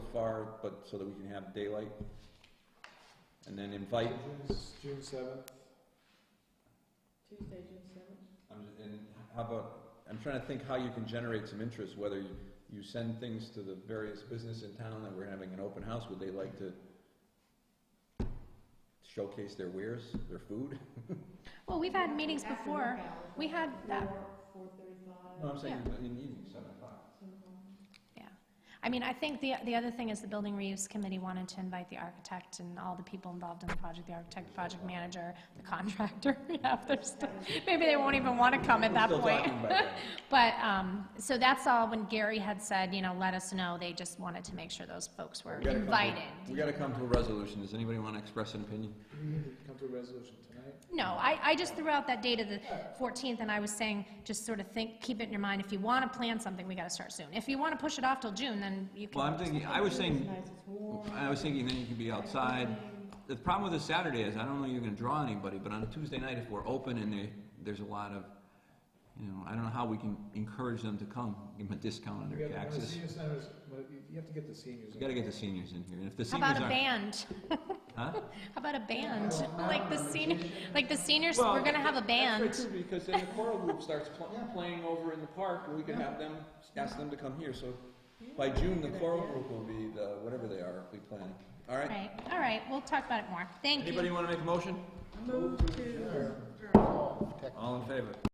far, but so that we can have daylight. And then invite, June seventh. Tuesday, June seventh. I'm just- and how about, I'm trying to think how you can generate some interest, whether you- you send things to the various business in town that we're having an open house, would they like to showcase their wares, their food? Well, we've had meetings before. We had that. Four thirty-five. No, I'm saying in the evening, seven o'clock. Yeah. I mean, I think the, the other thing is the building reuse committee wanted to invite the architect and all the people involved in the project, the architect, project manager, the contractor, half their stuff. Maybe they won't even want to come at We're that still point. talking about that. But, um, so that's all when Gary had said, you know, let us know, they just wanted to make sure those folks were We gotta come to- invited. We gotta come to a resolution. Does anybody wanna express an opinion? We need to come to a resolution tonight. No, I, I just threw out that date of the 14th, and I was saying, just sort of think, keep it in your mind, if you want to plan something, we got to start soon. If you want to push it off till June, then you Well, I'm can, thinking, I was saying, Nice, it's warm. I was thinking then you could be outside. The problem with a Saturday is, I don't know you're gonna draw anybody, but on a Tuesday night, if we're open and there, there's a lot of, you know, I don't know how we can encourage them to come, give them a discount on We their gotta- when the taxes. senior centers- when you- you have to get the seniors. You gotta get the seniors in here, and if the how seniors about a aren't. band? Huh? How about a band? Like the senior, like the seniors, Well, we're going to have a That's band. right, too, because then the choral group starts pl- playing over in the park, and we could have them, Ask them to come here, so by June, the choral group will be the, whatever they are, we plan. All right? Right, all right, we'll talk about it more. Thank you. Anybody wanna make a motion? Move to. All in favor?